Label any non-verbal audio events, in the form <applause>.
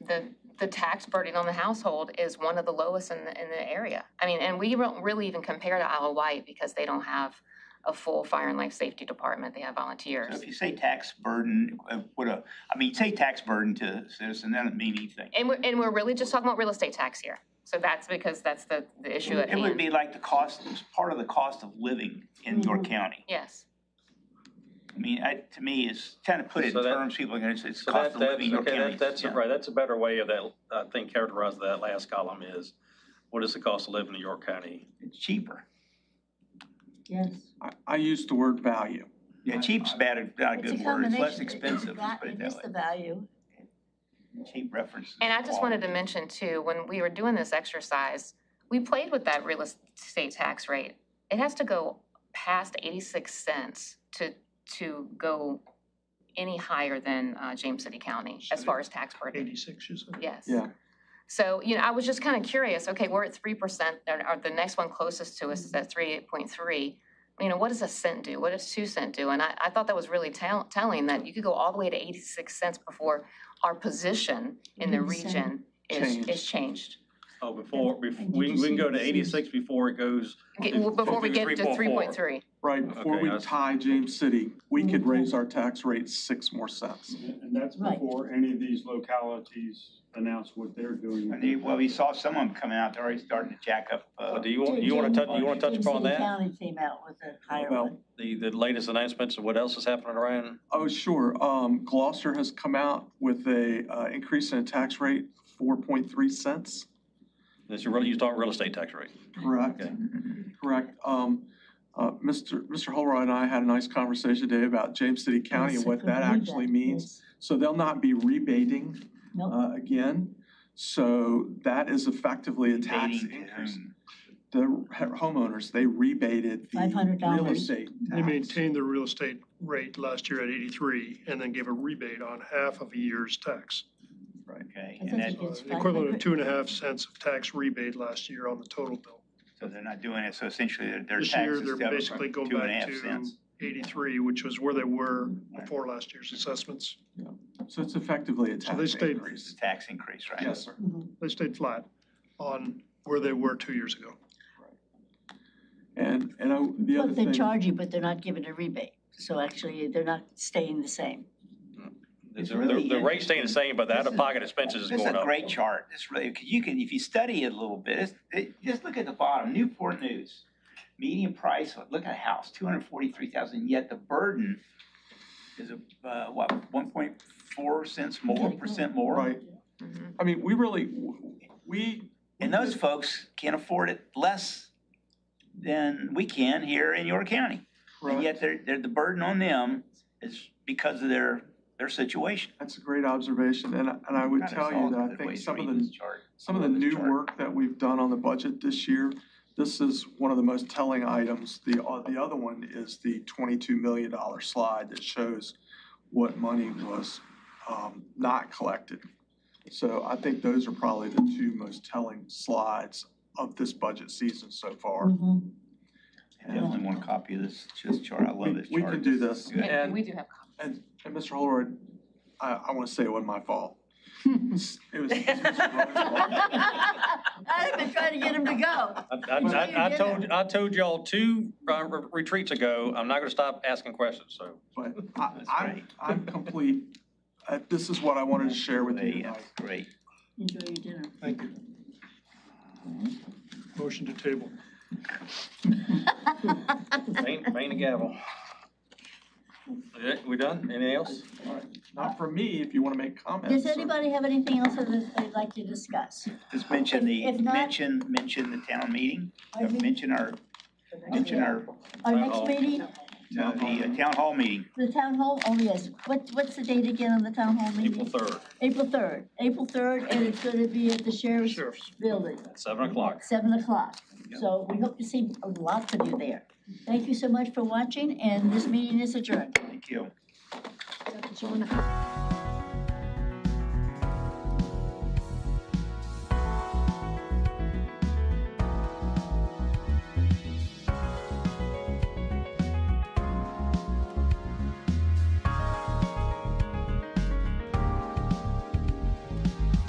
the, the tax burden on the household is one of the lowest in the, in the area. I mean, and we don't really even compare to Isle of Wight because they don't have a full fire and life safety department. They have So volunteers. if you say tax burden, uh, what a, I mean, say tax burden to a citizen, that doesn't mean anything. And we're, and we're really just talking about real estate tax here. So that's because that's the, the issue at It would hand. be like the cost, it's part of the cost of living in your county. Yes. I mean, I, to me, it's kind of put it in So that- terms people are gonna say it's So cost that, of that's, living in your okay, county. that, that's, Yeah. right, that's a better way of that, I think, characterize that last column is, what is the cost of living in York County? It's cheaper. Yes. I, I use the word value. Yeah, cheap's bad, or not a It's a good word. It's less combination. expensive, let's put it It that is way. the value. Cheap reference. And I just wanted to mention too, when we were doing this exercise, we played with that real estate tax rate. It has to go past eighty-six cents to, to go any higher than, uh, James City County as far as tax burden, Eighty-six, you said? yes. Yeah. So, you know, I was just kind of curious, okay, we're at three percent, or, or the next one closest to us is at three eight point three. You know, what does a cent do? What does two cent do? And I, I thought that was really tell, telling that you could go all the way to eighty-six cents before our position in the Mhm. region is, Changed. is changed. Oh, before, And- bef- and did we, you we can see go to the series? eighty-six before it goes, Get- Okay, well, Before we do get to three 3.4. point three. Right, before Okay, we that's- tie James City, we could raise our tax rate six more cents. And that's Right. before any of these localities announce what they're doing. And you, well, we saw some of them coming out, they're already starting to jack up, uh, Well, do you, want you wanna touch, you wanna touch upon James City that? County came out with a higher Well, one. The, the latest announcements of what else is happening around? Oh, sure, um, Gloucester has come out with a, uh, increase in tax rate, four point three cents, That's your, real- you talk real estate tax rate. correct? Okay. Correct, um, uh, Mr. Mr. Holroyd and I had a nice conversation today about James City County Yes, and I what that believe actually that, means. yes. So they'll not be rebating, Nope, uh, again, so that is effectively a tax debating to increase. whom. the homeowners, they rebated the $500. real estate They tax. maintained the real estate rate last year at eighty-three and then gave a rebate on half of a year's tax. Okay, I and think that, it It's Uh, the Equivalent of 500. two and a half cents of tax rebate last year on the total bill. so they're not doing it, so essentially their, their This year, taxes they're go basically from going two and a back half to cents. eighty-three, which was where they were Right. before last year's assessments. So it's effectively a they tax It's stayed- a increase. tax increase, right? Yes, sir. Mhm. They stayed flat on where they were two years ago. And, and I, the Well, other they thing, charge you, but they're not giving a rebate. So actually, they're not staying the same. The, It's the really the rate's staying the interesting. same, but the out-of-pocket expenses is This is going a up. great chart. This really, 'cause you can, if you study it a little bit, it's, it, just look at the bottom, Newport News. Median price, look at a house, two hundred forty-three thousand, yet the burden is a, uh, what, one point four cents more, percent more? right, Mhm. I mean, we really, we, And those folks can afford it less than we can here in York County. And right, yet they're, they're, the burden on them is because of their, their situation. that's a great observation, and, I- and I would God, tell it's all you that I good think ways to some of read the, this chart. some of the Love this new chart. work that we've done on the budget this year, this is one of the most telling items. The, uh, the other one is the twenty-two million dollar slide that shows what money was, um, not collected. So I think those are probably the two most telling slides of this budget season so far. Hmm. Mhm. I Definitely want a copy of this, this chart. I love this chart. We- we can do this. Good. And And- we do have copies. And, and Mr. Holroyd, I, I want to say it wasn't <laughs> my fault. It was. it was Mr. Rhodes' fault. <laughs> I've been trying to get him to go. I, I, I- I told, I told y'all two uh, re- retreats ago, I'm not gonna stop asking questions, so. But I, <laughs> That's I'm, great. I'm complete. Uh, This is what I wanted to share with you Yeah, tonight. That's great. Enjoy your dinner. Thank you. Motion to table. Bang, bang the gavel. Okay, We done? Anything else? Not from me, if you want to make comments. Does or- anybody have anything else that they'd like to discuss? Just mention the, If not- mention, mention the town meeting, Are we- mention our, mention our, Our Town next hall. meeting, uh, the uh, town hall meeting. the town hall, oh yes, what, what's the date again on the town hall meeting? April third, April third, April third, and it's gonna be at the sheriff's Sheriff's. building, seven o'clock. seven o'clock. Yep. So we hope to see lots of you there. Thank you so much for watching, and this meeting is adjourned. Thank you. Dr. Joanna.